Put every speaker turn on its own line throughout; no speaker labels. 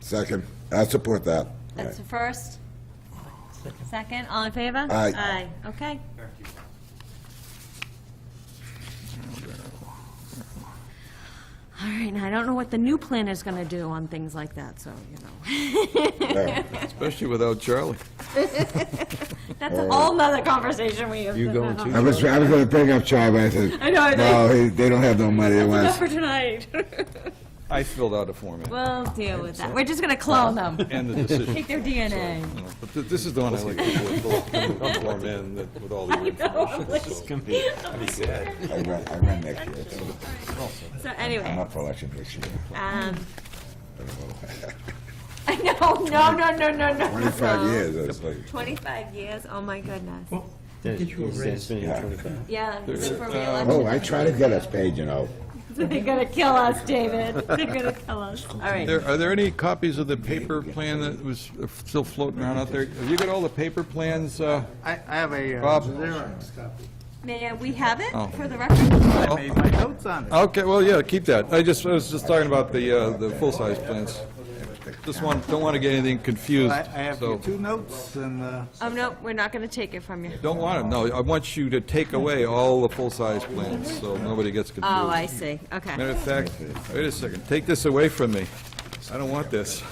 Second, I support that.
That's the first. Second, all in favor?
Aye.
Aye, okay. All right, now I don't know what the new plan is gonna do on things like that, so, you know.
Yeah.
Especially without Charlie.
That's a whole nother conversation we have.
You going
I was, I was gonna bring up Charlie, but I said,
I know, I
no, he- they don't have no money, they want
Enough for tonight.
I filled out a form, and-
We'll deal with that. We're just gonna clone them,
and the decision.
take their DNA.
you know, But th- this is the one I like. to
form in that- with all the
No, I'm
information.
like-
so-
I run, I run next year, so
So
I'm
anyway,
up for election this year.
um. I know, no, no, no, no, no.
Twenty-five
no.
years, that's like,
25 years, oh my goodness.
Did you raise?
Yeah, this is for
oh,
uh,
reelection.
I try to get us paid, you know.
They're gonna kill us, David. They're gonna kill us. All right.
There, are there any copies of the paper plan that was uh, still floating around out there? Have you got all the paper plans, uh,
I, I have a uh,
Bob?
Xerox copy.
May we have it
Oh.
for the record?
I made my notes on it.
Okay, well, yeah, keep that. I just, I was just talking about the, uh, the full-size plans. Just want, don't want to get anything confused,
I, I have your
so.
two notes and, uh,
Oh, no, we're not gonna take it from you.
Don't want them, no. I want you to take away all the full-size plans, so nobody gets confused.
Oh, I see,
Matter
okay.
of fact, wait a second, take this away from me. I don't want this.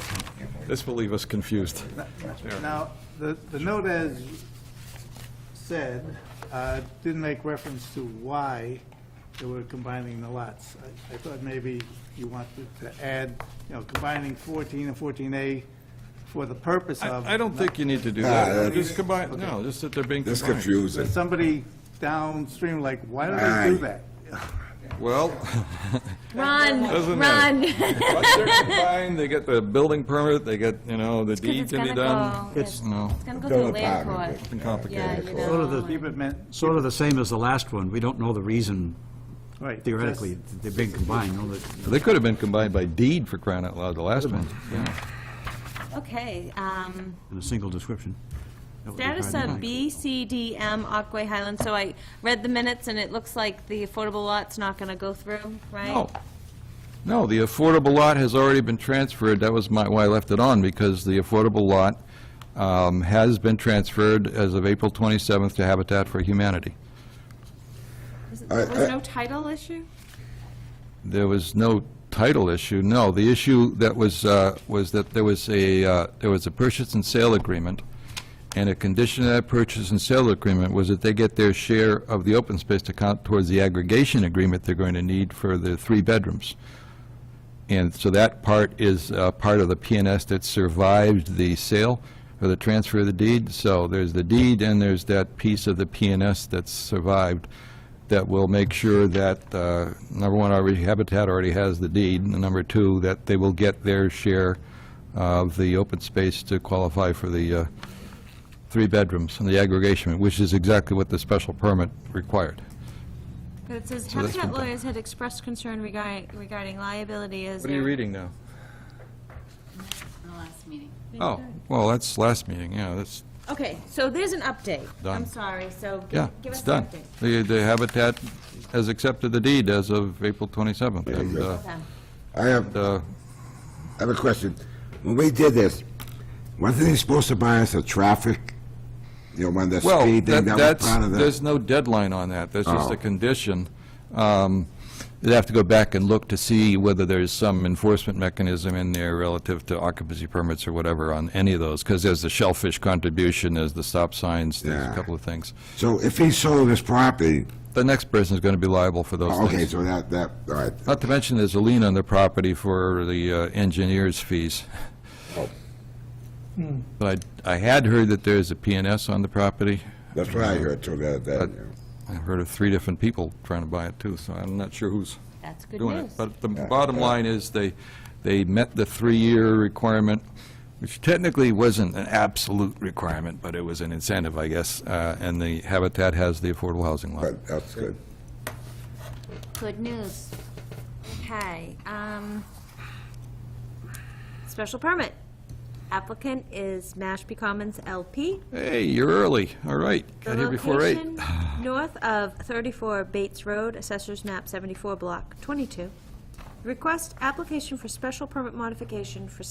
This will leave us confused.
now, the, the note as said, uh, didn't make reference to why they were combining the lots. I, I thought maybe you wanted to add, you know, combining fourteen and fourteen A for the purpose of.
I I don't think you need to do
Nah,
that.
that's-
Just combine, no, just that they're being
This
combined.
confusing.
There's somebody downstream like, why do they do
Aye.
that?
Well,
Run,
Doesn't
run.
matter. once they're combined, they get the building permit, they get, you know, the deed
It's
can be
gonna
done.
go, it's
No,
it's gonna go
Bill
through land court.
apartment.
Yeah, you
complicated.
know.
Sort of the,
Keep it meant,
sort of the same as the last one. We don't know the reason
right.
theoretically
just-
that they're being combined. all the-
They could have been combined by deed for crying out loud, the last one.
Okay, um,
In a single description. That would be
status
hard to
of
find.
B, C, D, M, Aquay Highlands. So I read the minutes and it looks like the affordable lot's not gonna go through, right?
No. No, the affordable lot has already been transferred. That was my, why I left it on, because the affordable lot um, has been transferred as of April 27th to Habitat for Humanity.
Was it-
Uh,
I-
was
I-
no title issue?
There was no title issue, no. The issue that was, uh, was that there was a, uh, there was a purchase and sale agreement, and a condition of that purchase and sale agreement was that they get their share of the open space to count towards the aggregation agreement they're going to need for the three bedrooms. And so that part is uh, part of the PNS that survived the sale or the transfer of the deed. So there's the deed and there's that piece of the PNS that's survived that will make sure that, uh, number one, already Habitat already has the deed, and number two, that they will get their share of the open space to qualify for the uh, three bedrooms and the aggregation, which is exactly what the special permit required.
But it says
So that's
Habitat
been done.
lawyers had expressed concern regarding, regarding liability as.
What are you reading now?
the last meeting.
Oh, well, that's last meeting, yeah, that's,
Okay, so there's an update. I'm
Done.
sorry, so gi-
Yeah,
give
it's
us an
done.
update.
The the Habitat has accepted the deed as of April 27th.
you
and,
go.
uh,
Okay.
I have,
uh,
I have a question. When we did this, wasn't he supposed to buy us a traffic, you know, one of the
Well,
speed
that-
thing that
that's,
was part of
there's
the?
no deadline on that, that's just
Oh.
a condition. Um, You'd have to go back and look to see whether there's some enforcement mechanism in there relative to occupancy permits or whatever on any of those, because there's the shellfish contribution, there's the stop signs, there's
Yeah.
a couple of things.
So if he sold his property,
The next person is going to be liable for those
Oh, okay,
things.
so that, that, all right,
Not to mention, there's a lien on the property for the uh, engineer's fees.
Oh.
But I I had heard that there's a PNS on the property.
that's what I heard too, that, that, you know.
I've heard of three different people trying to buy it too, so I'm not sure who's
That's good
doing it.
news.
But the bottom line is they, they met the three-year requirement, which technically wasn't an absolute requirement, but it was an incentive, I guess. Uh, And the Habitat has the affordable housing lot.
but that's good.
Good news.
Okay, um, special permit. Applicant is Mashpee Commons LP.
Hey, you're early, all right.
The
Got here before eight.
location North of 34 Bates Road, Assessors Map 74, Block 22. Request application for special permit modification for